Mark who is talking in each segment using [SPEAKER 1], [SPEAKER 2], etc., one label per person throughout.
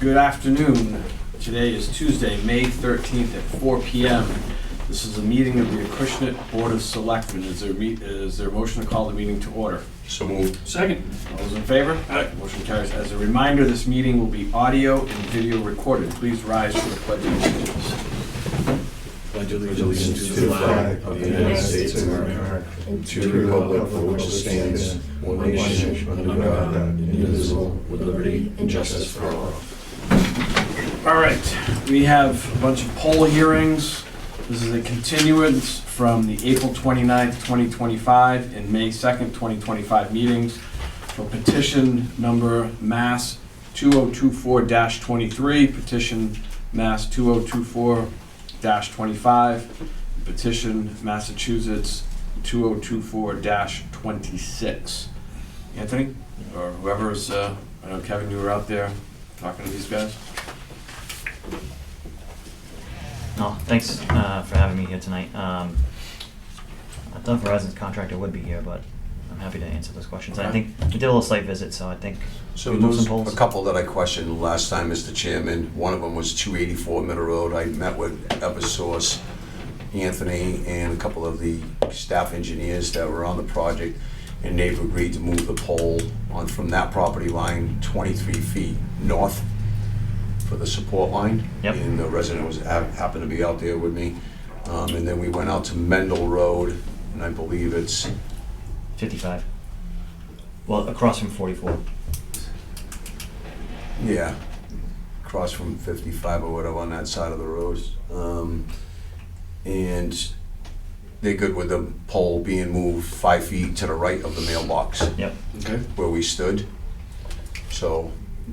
[SPEAKER 1] Good afternoon. Today is Tuesday, May 13th at 4 PM. This is a meeting of the Acushnet Board of Selectmen. Is there meet, is there a motion to call the meeting to order?
[SPEAKER 2] So moved.
[SPEAKER 3] Second.
[SPEAKER 1] All those in favor?
[SPEAKER 3] Aye.
[SPEAKER 1] Motion carries. As a reminder, this meeting will be audio and video recorded. Please rise for the pledge of allegiance.
[SPEAKER 2] Pledge allegiance to the flag of the United States of America and to the republic for which it stands, one nation, under God, indivisible, with liberty and justice for all.
[SPEAKER 1] All right, we have a bunch of poll hearings. This is a continuance from the April 29th, 2025 and May 2nd, 2025 meetings for petition number Mass 2024-23, petition Mass 2024-25, petition Massachusetts 2024-26. Anthony, or whoever's, uh, I know Kevin, you were out there talking to these guys?
[SPEAKER 4] No, thanks uh, for having me here tonight. Um, I thought Verizon's contractor would be here, but I'm happy to answer those questions. I
[SPEAKER 1] Okay.
[SPEAKER 4] think we did a little site visit, so I think
[SPEAKER 2] So
[SPEAKER 4] We move
[SPEAKER 2] there's
[SPEAKER 4] some polls.
[SPEAKER 2] a couple that I questioned last time, Mr. Chairman. One of them was 284 Middle Road. I met with Eversource, Anthony, and a couple of the staff engineers that were on the project, and they've agreed to move the pole on from that property line 23 feet north for the support line.
[SPEAKER 4] Yep.
[SPEAKER 2] And the resident was, hap- happened to be out there with me. Um, And then we went out to Mendel Road, and I believe it's
[SPEAKER 4] 55. Well, across from 44.
[SPEAKER 2] Yeah, across from 55 or whatever on that side of the road. Um, And they're good with the pole being moved five feet to the right of the mailbox
[SPEAKER 4] Yep.
[SPEAKER 1] Okay.
[SPEAKER 2] where we stood. So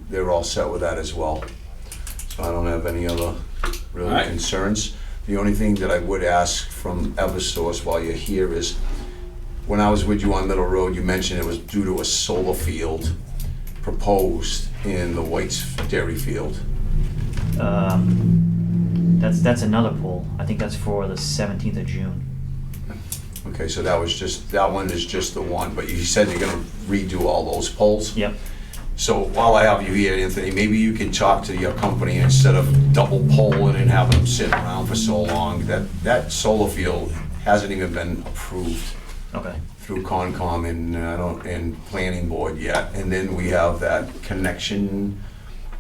[SPEAKER 2] they're all set with that as well. So I don't have any other
[SPEAKER 1] All
[SPEAKER 2] really
[SPEAKER 1] right.
[SPEAKER 2] concerns. The only thing that I would ask from Eversource while you're here is, when I was with you on Middle Road, you mentioned it was due to a solar field proposed in the White's Dairy Field.
[SPEAKER 4] Um, that's that's another poll. I think that's for the 17th of June.
[SPEAKER 2] Okay, so that was just, that one is just the one, but you said you're gonna redo all those poles?
[SPEAKER 4] Yep.
[SPEAKER 2] So while I have you here, Anthony, maybe you can talk to your company instead of double polling and having them sit around for so long. That, that solar field hasn't even been approved
[SPEAKER 4] Okay.
[SPEAKER 2] through Concom and, uh, I don't, and Planning Board yet. And then we have that connection,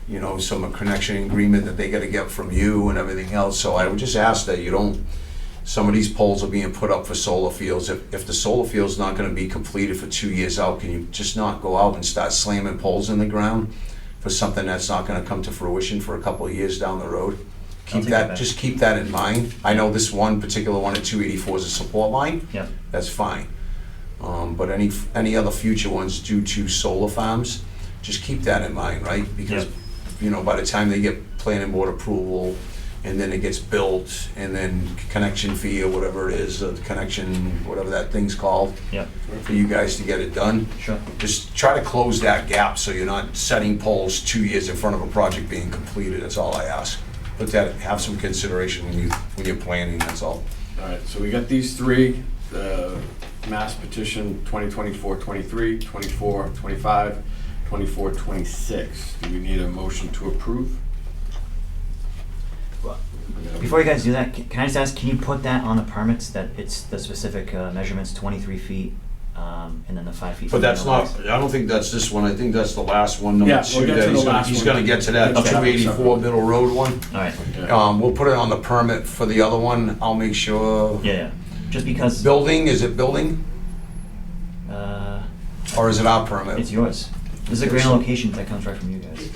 [SPEAKER 2] you know, some connection agreement that they gotta get from you and everything else. So I would just ask that you don't, some of these poles are being put up for solar fields. If, if the solar field's not gonna be completed for two years out, can you just not go out and start slamming poles in the ground for something that's not gonna come to fruition for a couple of years down the road? Keep
[SPEAKER 4] take that
[SPEAKER 2] that,
[SPEAKER 4] back.
[SPEAKER 2] just keep that in mind. I know this one particular one at two eighty-four is a support line
[SPEAKER 4] Yep.
[SPEAKER 2] that's fine. Um, but any, any other future ones due to solar farms, just keep that in mind, right? Because,
[SPEAKER 4] Yep.
[SPEAKER 2] you know, by the time they get planning board approval, and then it gets built, and then connection fee or whatever it is, uh, connection, whatever that thing's called,
[SPEAKER 4] Yep.
[SPEAKER 2] for you guys to get it done,
[SPEAKER 4] Sure.
[SPEAKER 2] just try to close that gap so you're not setting poles two years in front of a project being completed, that's all I ask. But that, have some consideration when you, when you're planning, that's all.
[SPEAKER 1] All right, so we got these three, uh, mass petition 2024, 23, 24, 25, 24, 26. Do we need a motion to approve?
[SPEAKER 4] Well, Before you guys do that, can, can I just ask? Can you put that on the permits that it's the specific uh, measurements 23 feet, um, and then the five feet.
[SPEAKER 2] But
[SPEAKER 4] from the
[SPEAKER 2] that's not,
[SPEAKER 4] mailbox?
[SPEAKER 2] I don't think that's this one, I think that's the last one, number
[SPEAKER 1] Yeah, we'll
[SPEAKER 2] two,
[SPEAKER 1] get to
[SPEAKER 2] that
[SPEAKER 1] the
[SPEAKER 2] he's gonna,
[SPEAKER 1] last
[SPEAKER 2] he's
[SPEAKER 1] one.
[SPEAKER 2] gonna get to that
[SPEAKER 1] Okay.
[SPEAKER 2] two eighty-four Middle Road one.
[SPEAKER 4] All right.
[SPEAKER 1] Yeah.
[SPEAKER 2] Um, we'll put it on the permit for the other one, I'll make sure.
[SPEAKER 4] Yeah. yeah. Just because.
[SPEAKER 2] Building, is it building,
[SPEAKER 4] Uh,
[SPEAKER 2] or is it our permit?
[SPEAKER 4] It's yours. This is a grand location that comes right from you guys.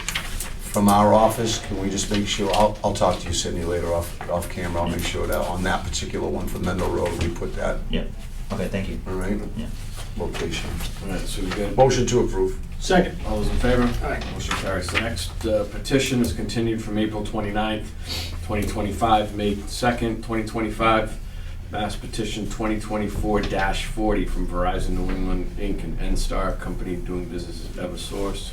[SPEAKER 2] From our office, can we just make sure, I'll, I'll talk to you, Sydney, later off, off camera, I'll make sure that on that particular one for Mendel Road, we put that,
[SPEAKER 4] Yeah. Okay, thank you.
[SPEAKER 2] all right?
[SPEAKER 4] Yeah.
[SPEAKER 2] Location.
[SPEAKER 1] All right, so we got,
[SPEAKER 2] Motion to approve.
[SPEAKER 3] Second.
[SPEAKER 1] all those in favor?
[SPEAKER 3] Aye.
[SPEAKER 1] Motion carries. The next uh, petition is continued from April 29th, 2025, May 2nd, 2025. Mass petition 2024-40 from Verizon New England Inc. and NSTAR Company doing business as Eversource.